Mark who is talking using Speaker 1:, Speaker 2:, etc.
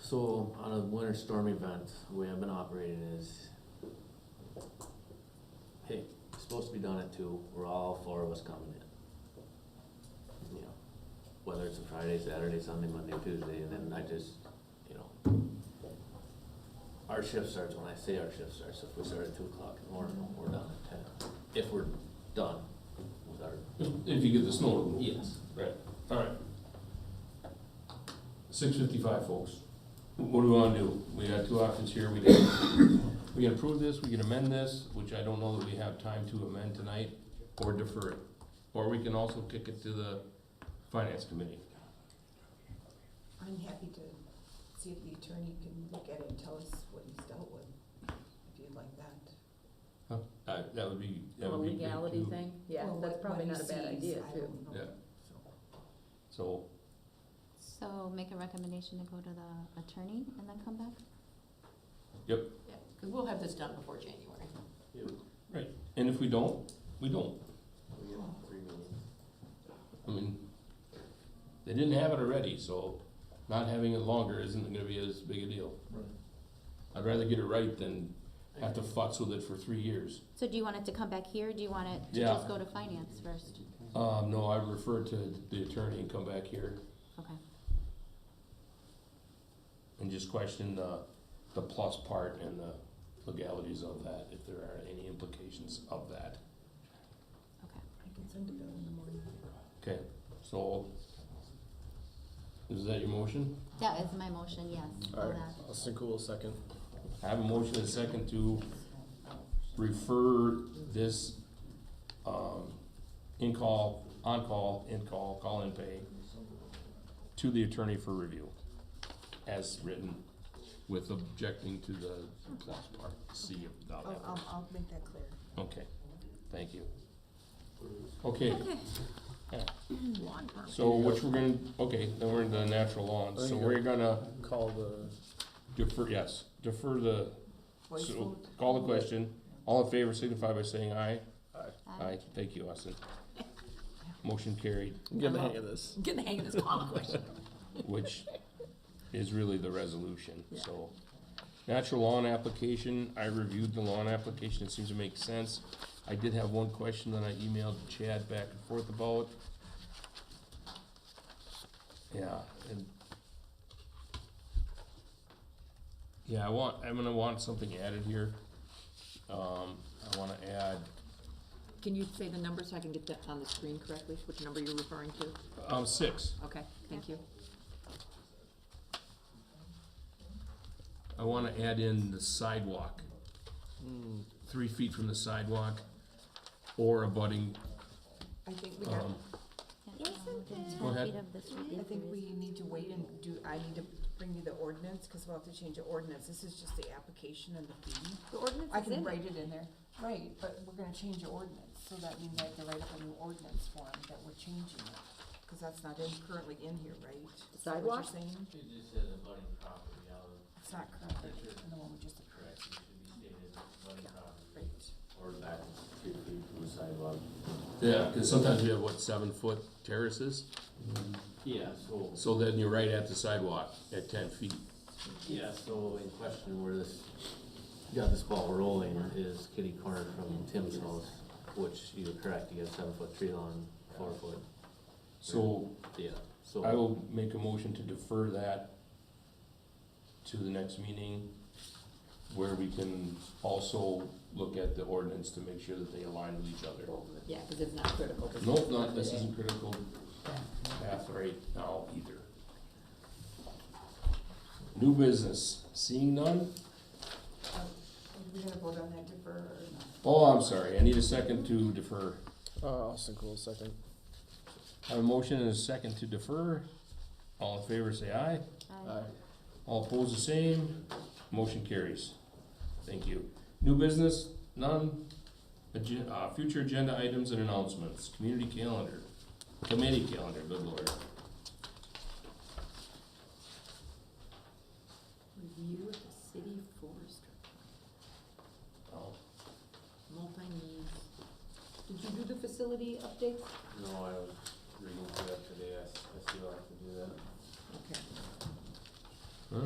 Speaker 1: So on a winter storm event, the way I've been operating is, hey, it's supposed to be done at two, we're all four of us coming in. You know, whether it's a Friday, Saturday, Sunday, Monday, Tuesday, and then I just, you know. Our shift starts, when I say our shift starts, if we start at two o'clock in the morning, we're done at ten, if we're done with our,
Speaker 2: If you get the snow removal.
Speaker 1: yes.
Speaker 2: Right, all right. Six fifty-five, folks. What do we wanna do? We got two options here. We can, we can approve this, we can amend this, which I don't know that we have time to amend tonight, or defer it. Or we can also kick it to the finance committee.
Speaker 3: I'm happy to see if the attorney can look at it and tell us what he's dealt with, if you'd like that.
Speaker 2: Uh, that would be, that
Speaker 4: A
Speaker 2: would be great
Speaker 4: legality
Speaker 2: too.
Speaker 4: thing, yeah,
Speaker 3: Well,
Speaker 4: that's
Speaker 3: what-
Speaker 4: probably
Speaker 3: what
Speaker 4: not
Speaker 3: he
Speaker 4: a bad
Speaker 3: sees,
Speaker 4: idea
Speaker 3: I
Speaker 4: too.
Speaker 3: don't know.
Speaker 2: Yeah.
Speaker 3: So,
Speaker 2: So,
Speaker 5: So make a recommendation to go to the attorney and then come back?
Speaker 6: Yeah, because we'll have this done before January.
Speaker 1: Yeah, we-
Speaker 2: and if we don't, we don't.
Speaker 1: we get three meetings.
Speaker 2: I mean, they didn't have it already, so not having it longer isn't gonna be as big a deal. I'd rather get it right than have to futz with it for three years.
Speaker 5: So do you want it to come back here? Do you want it to
Speaker 2: Yeah.
Speaker 5: just go to finance first?
Speaker 2: Um, no, I refer to the attorney and come back here
Speaker 5: Okay.
Speaker 2: and just question the, the plus part and the legalities of that, if there are any implications of that.
Speaker 3: I can send a bill in the morning.
Speaker 2: Okay, so, is that your motion?
Speaker 5: That is my motion, yes. for that.
Speaker 1: Cool, second.
Speaker 2: I have a motion and a second to refer this, um, in-call, on-call, in-call, call-in pay to the attorney for review, as written, with objecting to the plus part, C of
Speaker 3: I'll,
Speaker 2: dollar.
Speaker 3: I'll, I'll make that clear.
Speaker 2: Okay, thank you. Okay,
Speaker 6: Lawn permit.
Speaker 2: so which we're gonna, okay, then we're into natural
Speaker 7: I
Speaker 2: lawns,
Speaker 7: think
Speaker 2: so
Speaker 7: you're-
Speaker 2: we're gonna
Speaker 7: call the,
Speaker 2: defer, yes, defer the,
Speaker 3: Voice
Speaker 2: so,
Speaker 3: vote.
Speaker 2: call the question. All in favor signify by saying aye.
Speaker 5: Aye.
Speaker 2: Aye, thank you, Austin. Motion carried,
Speaker 7: get the hang
Speaker 3: Uh-huh.
Speaker 7: of this.
Speaker 6: Get the hang of this common question.
Speaker 2: which is really the resolution, so. Natural lawn application, I reviewed the lawn application, it seems to make sense. I did have one question that I emailed Chad back and forth about. Yeah, and. Yeah, I want, I'm gonna want something added here. Um, I wanna add,
Speaker 6: Can you say the number so I can get that on the screen correctly, which number you're referring to?
Speaker 2: um, six.
Speaker 6: Okay, thank you.
Speaker 2: I wanna add in the sidewalk. Three feet from the sidewalk or abutting,
Speaker 3: I think we got,
Speaker 2: um,
Speaker 5: Yeah,
Speaker 3: Isn't
Speaker 5: within
Speaker 3: it-
Speaker 2: Go
Speaker 5: five
Speaker 2: ahead.
Speaker 5: feet of this would be
Speaker 3: I think
Speaker 5: three.
Speaker 3: we need to wait and do, I need to bring you the ordinance, cause we'll have to change the ordinance. This is just the application and the fee.
Speaker 4: The ordinance
Speaker 3: I
Speaker 4: is in
Speaker 3: can
Speaker 4: it.
Speaker 3: write it in there, right, but we're gonna change the ordinance, so that means I have to write up a new ordinance form that we're changing it, cause that's not in, currently in here, right? Is that what
Speaker 4: Sidewalk?
Speaker 3: you're saying?
Speaker 1: It just says abutting property, I'll
Speaker 3: It's not currently, in the one we just
Speaker 1: correct,
Speaker 3: approved,
Speaker 1: it should be stated abutting property
Speaker 3: right?
Speaker 1: or back three feet from the sidewalk.
Speaker 2: yeah, cause sometimes we have, what, seven foot terraces?
Speaker 1: Yeah, so,
Speaker 2: So then you're right at the sidewalk at ten feet.
Speaker 1: yeah, so in question where this, got this ball rolling is kitty corner from Tim's house, which you're correct, you have seven foot tree line, four foot,
Speaker 2: So
Speaker 1: yeah, so.
Speaker 2: I will make a motion to defer that to the next meeting where we can also look at the ordinance to make sure that they align with each other.
Speaker 6: Yeah, because it's not critical. 'cause
Speaker 2: Nope,
Speaker 6: it's
Speaker 2: not, this
Speaker 6: today.
Speaker 2: isn't critical path right now either. New business, seeing none?
Speaker 3: We're gonna vote on that defer or not?
Speaker 2: Oh, I'm sorry, I need a second to defer.
Speaker 7: Uh, Austin Cool, second.
Speaker 2: I have a motion and a second to defer. All in favor, say aye.
Speaker 5: Aye.
Speaker 7: Aye.
Speaker 2: All opposed, the same. Motion carries. Thank you. New business, none. Agen- uh, future agenda items and announcements, community calendar, committee calendar, good lord.
Speaker 6: Review of the city forest,
Speaker 2: Oh,
Speaker 6: multi-needs. Did you do the facility updates?
Speaker 1: No, I was reading through that today, I, I still have to do that.